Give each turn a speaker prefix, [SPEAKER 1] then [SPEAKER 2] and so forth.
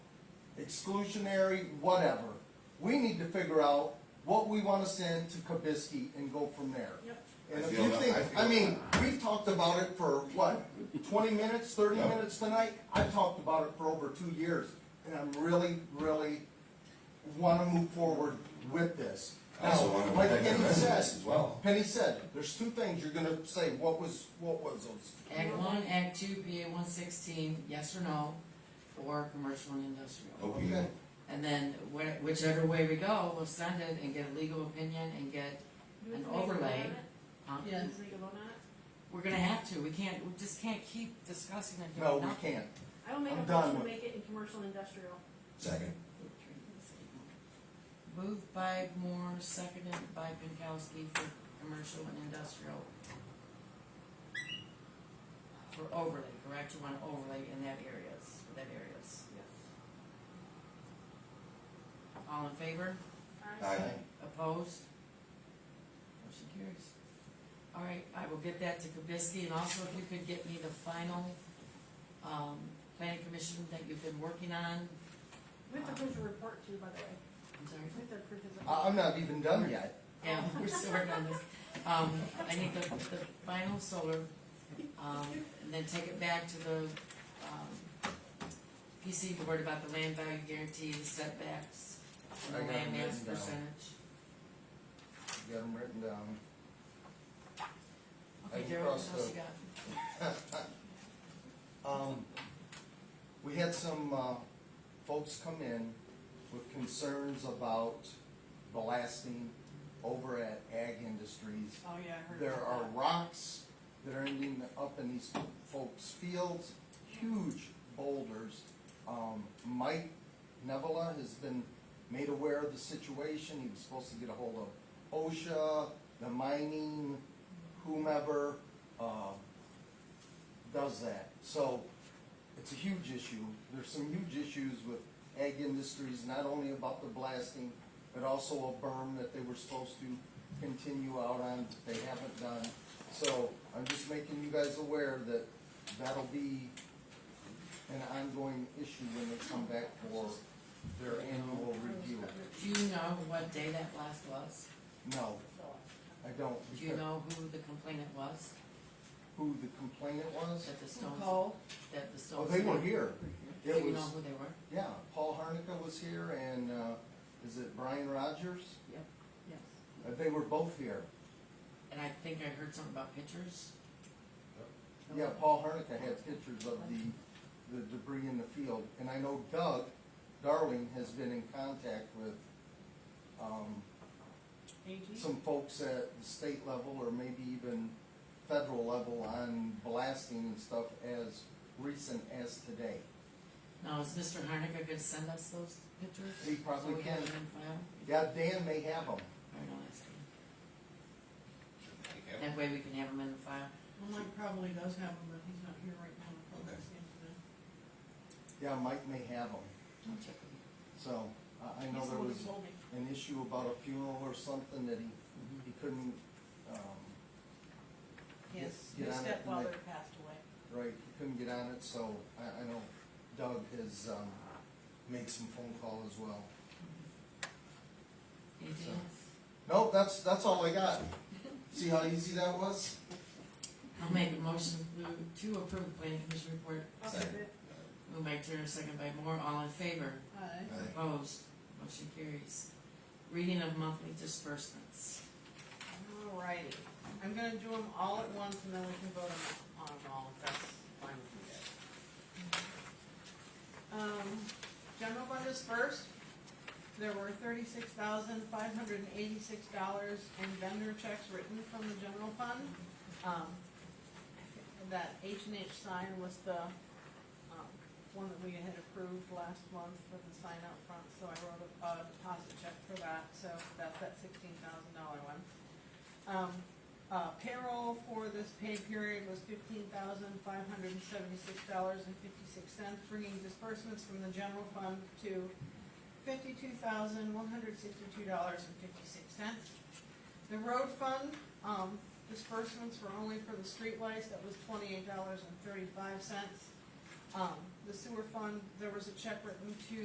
[SPEAKER 1] exclusionary, whatever. We need to figure out what we wanna send to Kabisky and go from there.
[SPEAKER 2] Yep.
[SPEAKER 1] And
[SPEAKER 3] I
[SPEAKER 1] if
[SPEAKER 3] feel
[SPEAKER 1] you
[SPEAKER 3] that-
[SPEAKER 1] think,
[SPEAKER 3] I feel
[SPEAKER 1] I mean, we've talked about it for what, twenty minutes, thirty
[SPEAKER 3] Yeah.
[SPEAKER 1] minutes tonight? I've talked about it for over two years, and I'm really, really wanna move forward with this.
[SPEAKER 3] I also
[SPEAKER 1] Now,
[SPEAKER 3] wanna
[SPEAKER 1] like
[SPEAKER 3] protect the
[SPEAKER 1] Penny
[SPEAKER 3] residents
[SPEAKER 1] said-
[SPEAKER 3] as well.
[SPEAKER 1] Penny said, there's two things you're gonna say, what was, what was those?
[SPEAKER 4] Act one, act two, PA one sixteen, yes or no, for commercial and industrial.
[SPEAKER 3] Opioid.
[SPEAKER 1] Okay.
[SPEAKER 4] And then wh- whichever way we go, we'll send it and get a legal opinion and get,
[SPEAKER 2] Do we
[SPEAKER 4] An
[SPEAKER 2] have to make a vote
[SPEAKER 4] overlay.
[SPEAKER 2] on it?
[SPEAKER 4] um,
[SPEAKER 2] Do we have to make a vote on it?
[SPEAKER 4] we're gonna have to, we can't, we just can't keep discussing it.
[SPEAKER 1] No, we can't.
[SPEAKER 2] I will make
[SPEAKER 1] I'm
[SPEAKER 2] a
[SPEAKER 1] done
[SPEAKER 2] motion to
[SPEAKER 1] with-
[SPEAKER 2] make it in commercial and industrial.
[SPEAKER 3] Second.
[SPEAKER 4] Moved by Moore, seconded by Pinkowski for commercial and industrial. For overlay, correct, you want overlay in that areas, for that areas.
[SPEAKER 2] Yes.
[SPEAKER 4] All in favor?
[SPEAKER 3] Aye.
[SPEAKER 4] Opposed? Motion carries. All right, I will get that to Kabisky, and also if you could get me the final, um, planning commission that you've been working on,
[SPEAKER 2] We have to approve your report too, by the way.
[SPEAKER 4] I'm sorry.
[SPEAKER 2] We have to approve his
[SPEAKER 1] I,
[SPEAKER 2] report.
[SPEAKER 1] I'm not even done yet.
[SPEAKER 4] Yeah, we're still working on this. Um, I need the, the final solar, um, and then take it back to the, um, PC board about the land value guarantee, the setbacks,
[SPEAKER 1] I
[SPEAKER 4] and
[SPEAKER 1] got
[SPEAKER 4] the
[SPEAKER 1] it
[SPEAKER 4] land mass
[SPEAKER 1] written down.
[SPEAKER 4] percentage.
[SPEAKER 1] Got them written down. I
[SPEAKER 4] Okay, Darryl, what
[SPEAKER 1] crossed
[SPEAKER 4] else
[SPEAKER 1] out.
[SPEAKER 4] you got?
[SPEAKER 1] Um, we had some, uh, folks come in with concerns about blasting over at Ag Industries.
[SPEAKER 2] Oh, yeah, I
[SPEAKER 1] There are rocks that are ending up in these folks' fields, huge boulders. Um, Mike Nevela has been made aware of the situation, he was supposed to get a hold of OSHA, the mining, whomever, uh, does that. So, it's a huge issue, there's some huge issues with ag industries, not only about the blasting, but also a berm that they were supposed to continue out on, that they haven't done. So, I'm just making you guys aware that that'll be an ongoing issue when they come back for their annual review.
[SPEAKER 4] Do you know what day that blast was?
[SPEAKER 1] No, I don't,
[SPEAKER 4] Do you
[SPEAKER 1] because
[SPEAKER 4] know who the complainant was,
[SPEAKER 1] who the complainant was?
[SPEAKER 4] that the stones, that the
[SPEAKER 1] Oh,
[SPEAKER 4] stones?
[SPEAKER 1] they were here.
[SPEAKER 4] Do
[SPEAKER 1] It
[SPEAKER 4] you know
[SPEAKER 1] was,
[SPEAKER 4] who they were?
[SPEAKER 1] yeah, Paul Harnica was here and, uh, is it Brian Rogers?
[SPEAKER 2] Yes.
[SPEAKER 1] Uh, They were both here.
[SPEAKER 4] And I think I heard something about pictures.
[SPEAKER 1] Yeah, Paul Hernica had pictures of the, the debris in the field, and I know Doug Darling has been in contact with, um, some folks at the state level or maybe even federal level on blasting and stuff as recent as today.
[SPEAKER 4] Now, is Mr. Harnica gonna send us those pictures?
[SPEAKER 1] He probably
[SPEAKER 4] So we have
[SPEAKER 1] can.
[SPEAKER 4] them in file?
[SPEAKER 1] Yeah, Dan may have them.
[SPEAKER 4] I don't know, that's good. That way we can have them in the file.
[SPEAKER 5] Well, Mike probably does have them, but he's not here right now. I'll probably see
[SPEAKER 3] Okay.
[SPEAKER 5] him today.
[SPEAKER 1] Yeah, Mike may have them.
[SPEAKER 4] I'll check with you.
[SPEAKER 1] So, I, I know
[SPEAKER 5] He's the
[SPEAKER 1] there
[SPEAKER 5] one
[SPEAKER 1] was
[SPEAKER 5] who told me.
[SPEAKER 1] an issue about a funeral or something that he, he couldn't, um,
[SPEAKER 5] His,
[SPEAKER 1] Get
[SPEAKER 5] his
[SPEAKER 1] on it and
[SPEAKER 5] stepfather
[SPEAKER 1] make-
[SPEAKER 5] passed away.
[SPEAKER 1] Right, he couldn't get on it, so I, I know Doug has, um, made some phone call as well.
[SPEAKER 4] Anything
[SPEAKER 1] So-
[SPEAKER 4] else?
[SPEAKER 1] Nope, that's, that's all I got. See how easy that was?
[SPEAKER 4] I'll make a motion to- to approve the planning commission report.
[SPEAKER 2] I'll
[SPEAKER 3] Second.
[SPEAKER 2] second it.
[SPEAKER 4] Moved by Turner, second by Moore, all in favor?
[SPEAKER 5] Aye.
[SPEAKER 3] Aye.
[SPEAKER 4] Opposed? Motion carries. Reading of monthly disbursements.
[SPEAKER 5] Alrighty, I'm gonna do them all at once and then we can vote on them all, if that's fine with you guys. Um, general fund is first. There were thirty-six thousand five hundred and eighty-six dollars in vendor checks written from the general fund. Um, that H and H sign was the, um, one that we had approved last month for the sign out front, so I wrote a, a deposit check for that, so that's that sixteen thousand dollar one. Um, uh, payroll for this pay period was fifteen thousand five hundred and seventy-six dollars and fifty-six cents, bringing disbursements from the general fund to fifty-two thousand one hundred sixty-two dollars and fifty-six cents. The road fund, um, disbursements were only for the streetlights, that was twenty-eight dollars and thirty-five cents. Um, the sewer fund, there was a check written to